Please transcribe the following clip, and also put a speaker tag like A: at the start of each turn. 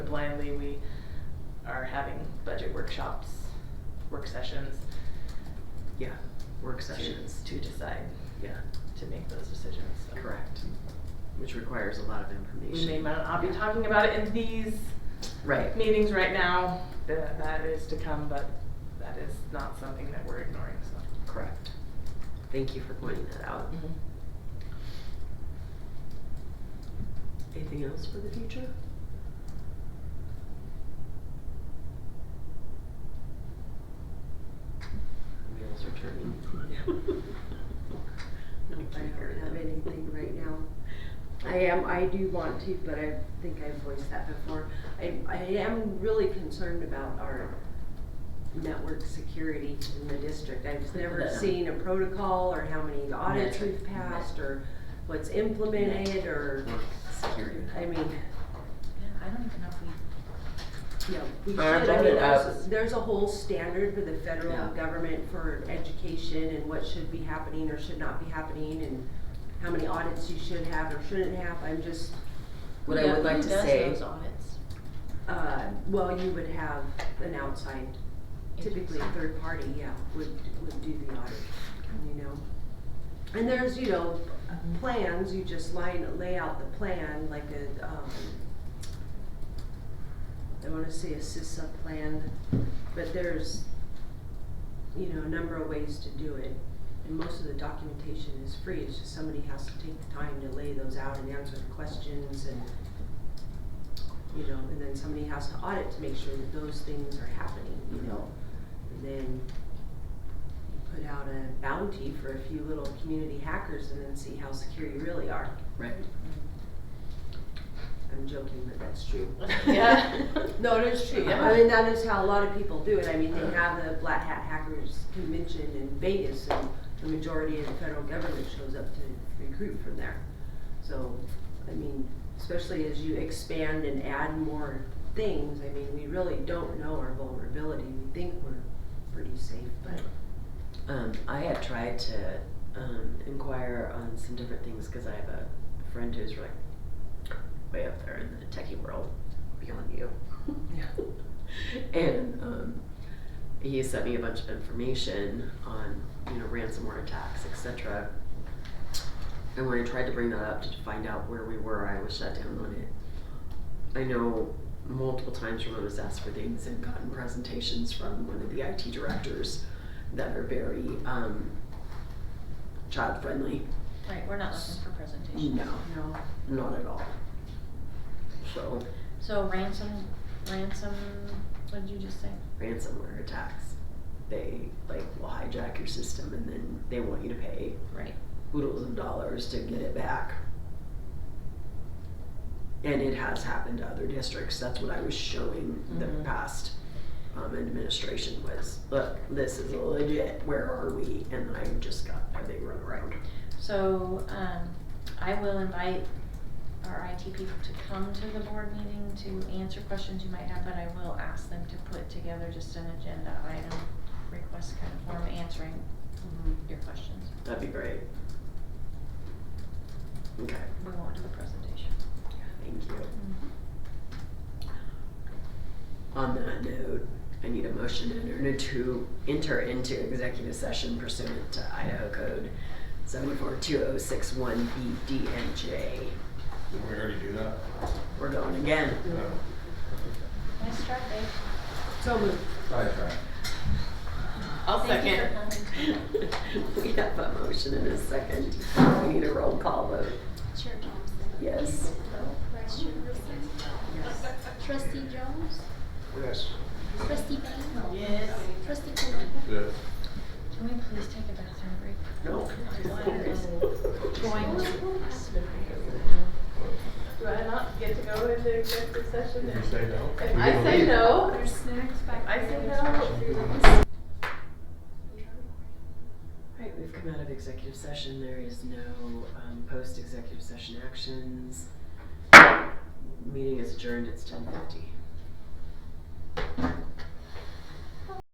A: blindly. We are having budget workshops, work sessions,
B: Yeah, work
A: to-
B: sessions.
A: to decide,
B: Yeah,
A: to make those decisions. so.
B: correct. Which requires a lot of
A: We
B: information.
A: may not be
B: Yeah.
A: talking about it in these
B: Right.
A: meetings right now, that, that is to come, but that is not something that we're ignoring, so.
B: Correct. Thank you for pointing that out.
A: Mm-hmm.
B: Anything else for the future? Wheels are turning.
C: No, I don't have anything right now. I am, I do want to, but I think I've voiced that before. I, I am really concerned about our network security in the district. I've never
B: Yeah.
C: seen a protocol or how many audits
B: Net.
C: we've passed or what's implemented or,
B: Work security.
C: I mean,
A: I don't even know if we.
C: yeah, we should,
B: I
C: I
B: brought
C: mean, uh,
B: it up.
C: there's, there's a whole standard for the federal
B: Yeah.
C: government for education and what should be happening or should not be happening and how many audits you should have or shouldn't have, I'm just,
B: What I would like to say,
A: audits?
C: uh, well, you would have an outside, typically a
A: Agency.
C: third party, yeah, would, would do the audit, you know? And there's, you know, plans, you just line, lay out the plan, like a, um, I wanna say a CISA plan, but there's, you know, a number of ways to do it. And most of the documentation is free, it's just somebody has to take the time to lay those out and answer the questions and, you know, and then somebody has to audit to make sure that those things are happening, you know? And then you put out a bounty for a few little community hackers and then see how secure you really are.
B: right,
C: I'm joking, but that's true.
A: Yeah.
C: No, it is true.
A: Yeah.
C: I mean, that is how a lot of people do it. I mean, they have the Black Hat Hackers Convention in Vegas and the majority of the federal government shows up to recruit from there. So, I mean, especially as you expand and add more things, I mean, we really don't know our vulnerability. We think we're pretty safe, but
B: um, I had tried to, um, inquire on some different things, cause I have a friend who's like way up there in the techie world, beyond you. And, um, he sent me a bunch of information on, you know, ransomware attacks, et cetera. And when I tried to bring that up to find out where we were, I was shut down on it. I know multiple times when I was asked for things and gotten presentations from one of the IT directors that are very, um, child-friendly.
D: Right, we're not looking for presentations.
B: No,
C: no.
B: not at all. So,
D: So ransom, ransom, what did you just say?
B: ransomware attacks, they like will hijack your system and then they want you to pay
D: Right.
B: oodles of dollars to get it back. And it has happened to other districts. That's what I was showing the
A: Mhm.
B: past um, administration was, look, this is legit. Where are we? And I just got a big run around.
D: So, um, I will invite our IT people to come to the board meeting to answer questions you might have, but I will ask them to put together just an agenda item, request kind of form answering your questions.
B: That'd be great. Okay,
D: We won't do a presentation.
B: thank you. On that note, I need a motion to enter to enter into executive session pursuant to Idaho Code seven four two oh six one B D and J.
E: Didn't we already do that?
B: We're going again.
E: No.
D: Nice try, Dave.
C: So moved.
E: Try, try.
A: I'll
D: Thank you
A: second.
D: for
B: We have a motion and a second. We need a roll call vote.
F: Chair Thompson.
B: Yes.
F: Vice Chair Wilson. Trustee Jones.
E: Yes.
F: Trustee Bain.
A: Yes.
F: Trustee Cody.
E: Yes.
D: Can we please take a bathroom break?
B: No.
D: Going to.
A: Do I not get to go into executive session?
E: Did you say no?
A: If
E: We
A: I
E: can
A: say
E: leave.
A: no. There's snacks back I say no.
B: Right, we've come out of executive session. There is no um, post-executive session actions. Meeting is adjourned. It's ten fifty.